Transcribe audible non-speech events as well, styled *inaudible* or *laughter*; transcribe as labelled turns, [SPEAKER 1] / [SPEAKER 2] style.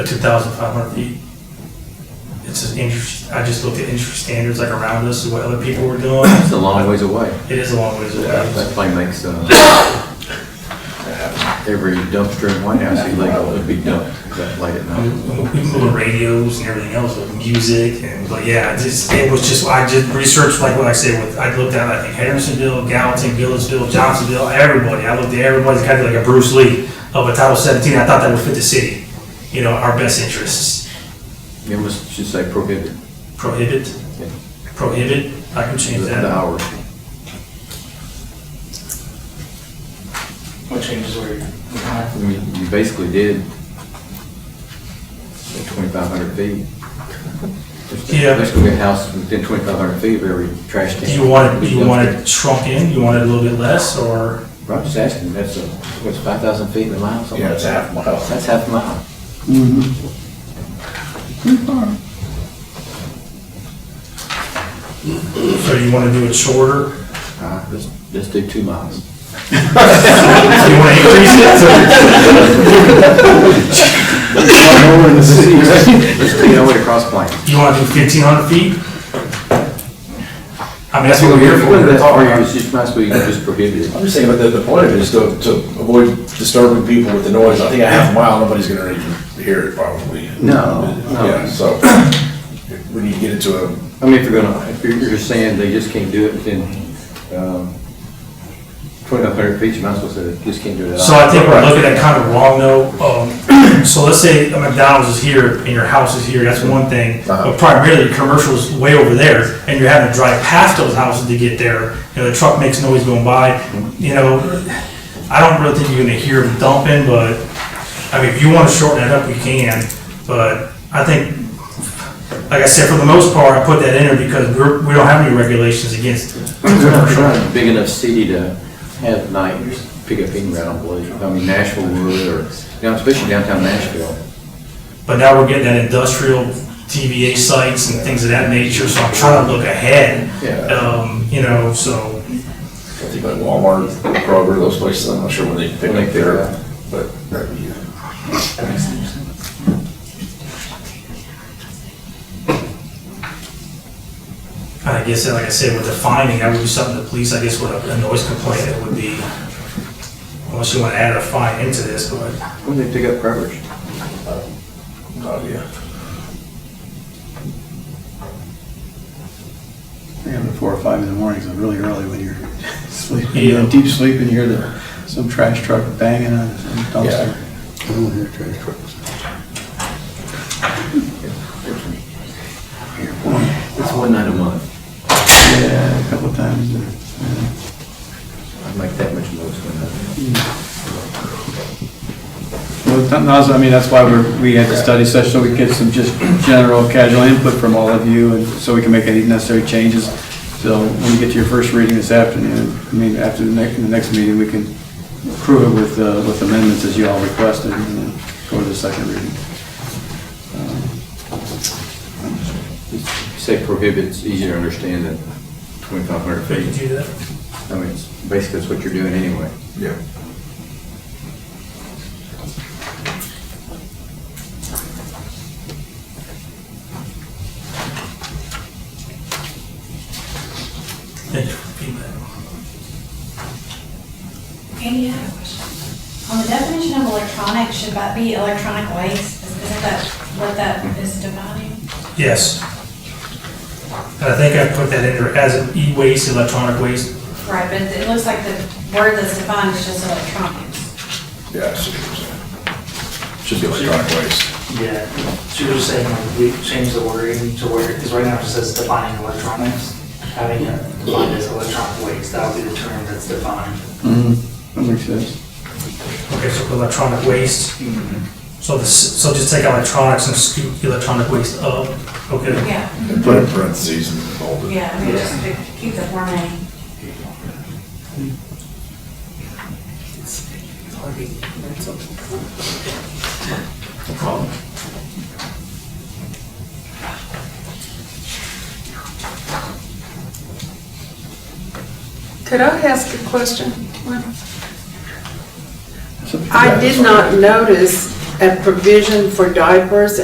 [SPEAKER 1] two thousand five hundred feet. It's an interest, I just looked at industry standards like around us and what other people were doing.
[SPEAKER 2] It's a long ways away.
[SPEAKER 1] It is a long ways away.
[SPEAKER 2] That thing makes, uh, every dumpster in White House illegal to be dumped that late at
[SPEAKER 1] I
[SPEAKER 2] night.
[SPEAKER 1] mean, We moved radios and everything else with music and, but yeah, it's just, it was just, I did research like what I said with, I looked at, I think Hendersonville, Gallatin, Gillisville, Johnsonville, everybody. I looked at everybody's kind of like a Bruce Lee of a Title seventeen. I thought that would fit the city, you know, our best interests. Mm-hmm.
[SPEAKER 2] It must, should say prohibited,
[SPEAKER 1] Prohibit,
[SPEAKER 2] Yeah.
[SPEAKER 1] prohibit, I can
[SPEAKER 2] the
[SPEAKER 1] change
[SPEAKER 2] the
[SPEAKER 1] that.
[SPEAKER 2] hours.
[SPEAKER 3] What changes were you?
[SPEAKER 2] I mean, you basically did twenty-five hundred feet. There's-
[SPEAKER 1] Yeah.
[SPEAKER 2] There's gonna be a house within twenty-five hundred feet of every trash can.
[SPEAKER 1] Do you want it,
[SPEAKER 2] Be
[SPEAKER 1] do you want
[SPEAKER 2] dumpster.
[SPEAKER 1] it shrunk in, you want it a little bit less, or?
[SPEAKER 2] I'm just asking, that's a, what's five thousand feet in a mile, something?
[SPEAKER 3] Yeah, it's a half mile.
[SPEAKER 2] That's half a mile.
[SPEAKER 1] So you wanna do it shorter?
[SPEAKER 2] Uh, let's, let's do two miles.
[SPEAKER 1] *laughs* So you wanna increase it?
[SPEAKER 2] Let's be all the way to Cross Plains.
[SPEAKER 1] You wanna do fifteen hundred feet? I mean, that's what we're here for.
[SPEAKER 2] Well,
[SPEAKER 1] We're
[SPEAKER 2] that's
[SPEAKER 1] talking
[SPEAKER 2] where you
[SPEAKER 1] about-
[SPEAKER 2] just might as well, you can just prohibit it.
[SPEAKER 3] I'm just saying, but the, the point of it is to, to avoid disturbing people with the noise. I think a half mile, nobody's gonna even hear it probably.
[SPEAKER 2] No, no.
[SPEAKER 3] Yeah, so when you get into a,
[SPEAKER 2] I mean, if you're gonna, if you're, you're saying they just can't do it within, um, twenty-five hundred feet, you might as well say they just can't do it at all.
[SPEAKER 1] So I think we're looking at kind of wrong though, um, *clears throat* so let's say a McDonald's is here and your house is here, that's one thing.
[SPEAKER 3] Uh-huh.
[SPEAKER 1] But primarily, commercial is way over there and you're having to drive past those houses to get there. You know, the truck makes noise going by, you know, I don't really think you're gonna hear them dumping, but, I mean, if you wanna shorten that up, you can. But I think, like I said, for the most part, I put that in there because we're, we don't have any regulations against
[SPEAKER 2] We're not- we're
[SPEAKER 1] commercial.
[SPEAKER 2] not a Big enough city to have night pickup anywhere, I don't believe. I mean, Nashville would, or, you know, especially downtown Nashville.
[SPEAKER 1] But now we're getting that industrial TVA sites and things of that nature, so I'm trying to look ahead.
[SPEAKER 2] Yeah.
[SPEAKER 1] Um, you know, so,
[SPEAKER 3] I think like Walmart, Kroger, those places, I'm not sure when they
[SPEAKER 2] When
[SPEAKER 3] pick
[SPEAKER 2] they
[SPEAKER 3] up their,
[SPEAKER 2] pick up.
[SPEAKER 3] but that'd be.
[SPEAKER 1] I guess, like I said, with the finding, that would be something the police, I guess, with a a noise complaint, it would be, unless you want to add a fine into this, but.
[SPEAKER 2] When they pick up garbage?
[SPEAKER 3] Oh, yeah.
[SPEAKER 4] Yeah, but four or five in the morning is really early when you're *laughs* sleeping,
[SPEAKER 1] Yeah.
[SPEAKER 4] you're in deep sleep and you hear the, some trash truck banging on some dumpster. I don't hear trash trucks. Hear one,
[SPEAKER 2] It's one night a month.
[SPEAKER 4] Yeah, a couple of times. yeah.
[SPEAKER 2] I'd make that much noise when I,
[SPEAKER 4] Well, that- that's- I mean, that's why we're, we had the study session, so we get some just general casual input from all of you, and so we can make any necessary changes. So when you get to your first reading this afternoon, I mean, after the next, the next meeting, we can approve it with, uh, with amendments as you all requested, and then go to the second reading. Um,
[SPEAKER 2] you say prohibit, it's easier to understand than twenty-five hundred
[SPEAKER 1] Could
[SPEAKER 2] feet.
[SPEAKER 1] you do that?
[SPEAKER 2] I mean, it's basically it's what you're doing anyway.
[SPEAKER 3] Yeah.
[SPEAKER 1] Thank you for feedback.
[SPEAKER 5] Any other questions? On the definition of electronic, should that be electronic waste? Is- Isn't that what that is defining?
[SPEAKER 1] Yes. And I think I put that in there as an e-waste, electronic waste.
[SPEAKER 5] Right, but it looks like the word that's defined is just electronics.
[SPEAKER 3] Yeah, I see what you're saying. Should be electronic waste.
[SPEAKER 6] Yeah, she was saying like, we changed the wording to where, because right now it says defining electronics, having it defined as electronic waste, that would be the term that's defined.
[SPEAKER 4] Mm, That makes sense.
[SPEAKER 1] Okay, so electronic waste. So this, so just take electronics and scoop electronic waste up, okay?
[SPEAKER 5] Yeah,
[SPEAKER 3] And put in parentheses and bold it.
[SPEAKER 5] yeah, I mean, just to keep the formatting.
[SPEAKER 7] Could I ask a question? I did not notice a provision for diapers